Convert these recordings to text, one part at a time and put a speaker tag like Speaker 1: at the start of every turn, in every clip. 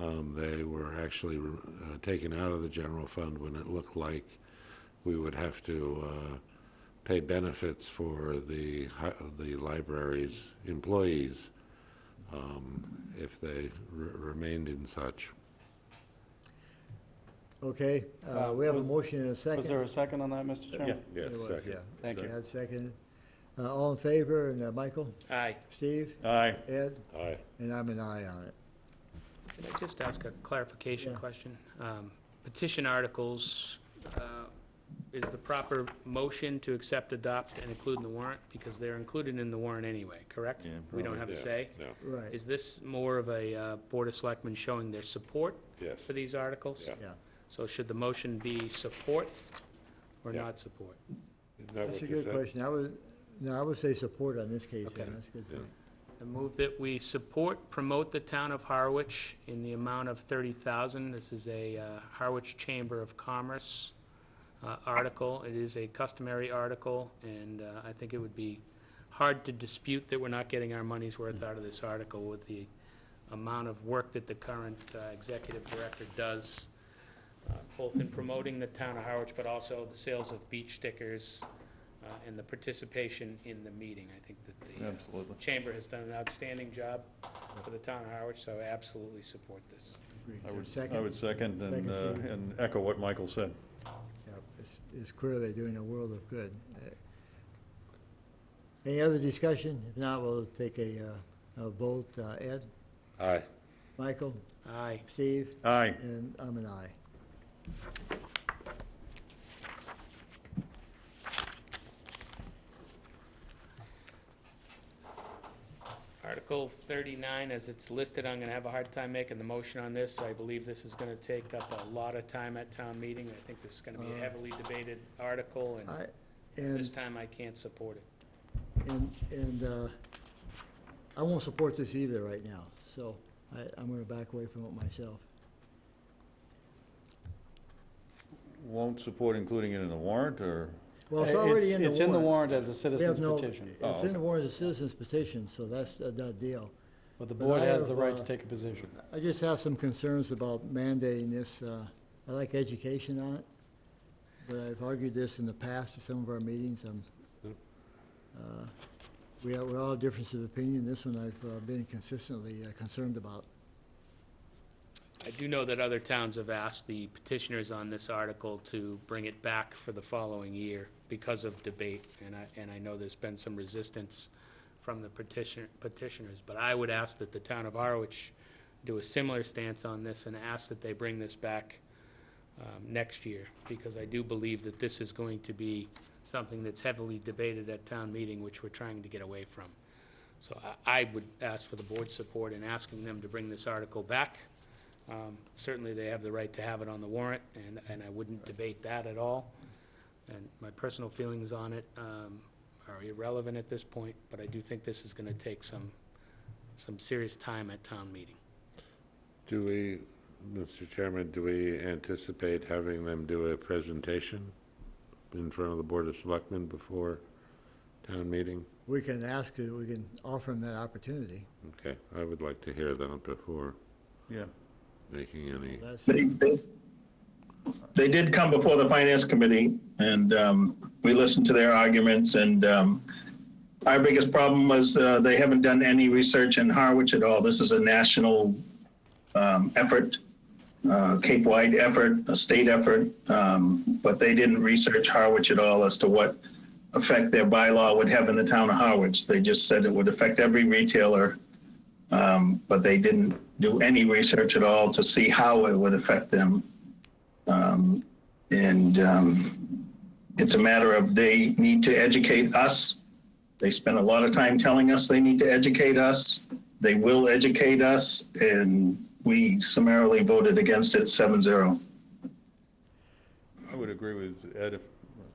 Speaker 1: Um, They were actually uh, taken out of the general fund when it looked like we would have to uh, pay benefits for the, hi- the library's employees um, if they re- remained in such.
Speaker 2: Okay, uh,
Speaker 3: Uh,
Speaker 2: we have a
Speaker 3: was-
Speaker 2: motion and a second.
Speaker 3: Was there a second on that, Mr. Chairman?
Speaker 2: There was, yeah.
Speaker 3: Thank you.
Speaker 2: Chad seconded. Uh, all in favor, and uh, Michael,
Speaker 4: Aye.
Speaker 2: Steve,
Speaker 3: Aye.
Speaker 2: Ed,
Speaker 1: Aye.
Speaker 2: and I'm an aye on it.
Speaker 4: Could I just ask a clarification
Speaker 2: Yeah.
Speaker 4: question? Um, Petition articles, uh, is the proper motion to accept, adopt, and include in the warrant? Because they're included in the warrant anyway, correct?
Speaker 3: Yeah,
Speaker 4: We don't have a say?
Speaker 1: No,
Speaker 2: Right,
Speaker 4: Is this more of a uh, Board of Selectmen showing their support
Speaker 1: yes.
Speaker 4: for these articles?
Speaker 1: Yeah.
Speaker 2: yeah.
Speaker 4: So should the motion be support or
Speaker 1: Yeah.
Speaker 4: not support?
Speaker 1: Isn't that
Speaker 2: That's
Speaker 1: what
Speaker 2: a
Speaker 1: you
Speaker 2: good
Speaker 1: said?
Speaker 2: question. I would, no, I would say support on this case, yeah,
Speaker 4: Okay.
Speaker 2: that's a good
Speaker 1: Yeah.
Speaker 2: point.
Speaker 4: I move that we support, promote the town of Harwich in the amount of thirty thousand. This is a uh, Harwich Chamber of Commerce uh, article. It is a customary article, and uh, I think it would be hard to dispute that we're not getting our money's worth out of this article with the amount of work that the current uh, executive director does, uh, both in promoting the town of Harwich, but also the sales of beach stickers uh, and the participation in the meeting. I think that the uh,
Speaker 3: Absolutely.
Speaker 4: Chamber has done an outstanding job for the town of Harwich, so I absolutely support this.
Speaker 2: Agree.
Speaker 3: I would, I
Speaker 2: Second,
Speaker 3: would second and,
Speaker 2: Second,
Speaker 3: uh,
Speaker 2: Steve.
Speaker 3: and echo what Michael said.
Speaker 2: yeah, it's, it's clear they're doing a world of good. Uh, Any other discussion? If not, we'll take a, uh, a vote. Uh, Ed,
Speaker 1: Aye.
Speaker 2: Michael,
Speaker 4: Aye.
Speaker 2: Steve,
Speaker 3: Aye.
Speaker 2: and I'm an aye.
Speaker 4: Article 39, as it's listed, I'm going to have a hard time making the motion on this. I believe this is going to take up a lot of time at town meeting. I think this is going to be a
Speaker 2: Uh,
Speaker 4: heavily debated article, and
Speaker 2: I,
Speaker 4: this
Speaker 2: and,
Speaker 4: time I can't support it.
Speaker 2: and, and, uh, I won't support this either right now, so I, I'm gonna back away from it myself.
Speaker 3: Won't support including it in the warrant, or?
Speaker 2: Well, it's already in the warrant.
Speaker 5: Uh, It's in the warrant as a
Speaker 2: We have
Speaker 5: citizen's
Speaker 2: no-
Speaker 5: petition,
Speaker 3: Oh,
Speaker 2: It's in the warrant as a citizen's petition, so that's a done deal.
Speaker 5: but the
Speaker 2: But
Speaker 5: board
Speaker 2: I
Speaker 5: has the
Speaker 2: have,
Speaker 5: right
Speaker 2: uh,
Speaker 5: to take a position.
Speaker 2: I just have some concerns about mandating this. uh, I like education on it, but I've argued this in the past at some of our meetings. I'm,
Speaker 1: Yep.
Speaker 2: uh, We have, we all have differences of opinion. This one I've uh, been consistently uh, concerned about.
Speaker 4: I do know that other towns have asked the petitioners on this article to bring it back for the following year because of debate, and I, and I know there's been some resistance from the petition petitioners, but I would ask that the town of Harwich do a similar stance on this and ask that they bring this back um, next year, because I do believe that this is going to be something that's heavily debated at town meeting, which we're trying to get away from. So I, I would ask for the board's support in asking them to bring this article back. Um, Certainly, they have the right to have it on the warrant, and, and I wouldn't debate that at all. And my personal feelings on it um, are irrelevant at this point, but I do think this is going to take some, some serious time at town meeting.
Speaker 1: Do we, Mr. Chairman, do we anticipate having them do a presentation in front of the Board of Selectmen before town meeting?
Speaker 2: We can ask, uh, we can offer them that opportunity.
Speaker 1: Okay, I would like to hear that before
Speaker 3: Yeah.
Speaker 1: making any,
Speaker 2: That's,
Speaker 6: They, they, they did come before the finance committee and, um, we listened to their arguments and, um, our biggest problem was, uh, they haven't done any research in Harwich at all. This is a national, um, effort, uh, Cape-wide effort, a state effort. Um, but they didn't research Harwich at all as to what effect their bylaw would have in the town of Harwich. They just said it would affect every retailer, um, but they didn't do any research at all to see how it would affect them. Um, and um, it's a matter of they need to educate us. They spend a lot of time telling us they need to educate us. They will educate us, and we summarily voted against it 7 0.
Speaker 3: I would agree with Ed if,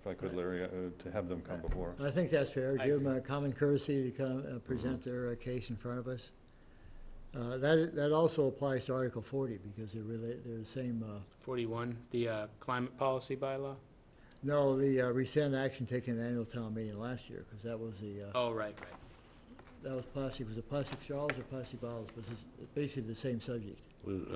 Speaker 3: if I could, Larry, uh, to have them come before.
Speaker 2: I think that's fair.
Speaker 4: I
Speaker 2: Give them a common courtesy to come, uh, present their uh, case in front of us. Uh, That, that also applies to Article 40, because they're really, they're the same, uh,
Speaker 4: 41, the uh, climate policy bylaw?
Speaker 2: No, the uh, rescind action taken at annual town meeting last year, because that was the, uh,
Speaker 4: Oh, right, right.
Speaker 2: that was plastic, was it plastic straws or plastic bottles? Was this- basically the same subject.
Speaker 1: uh,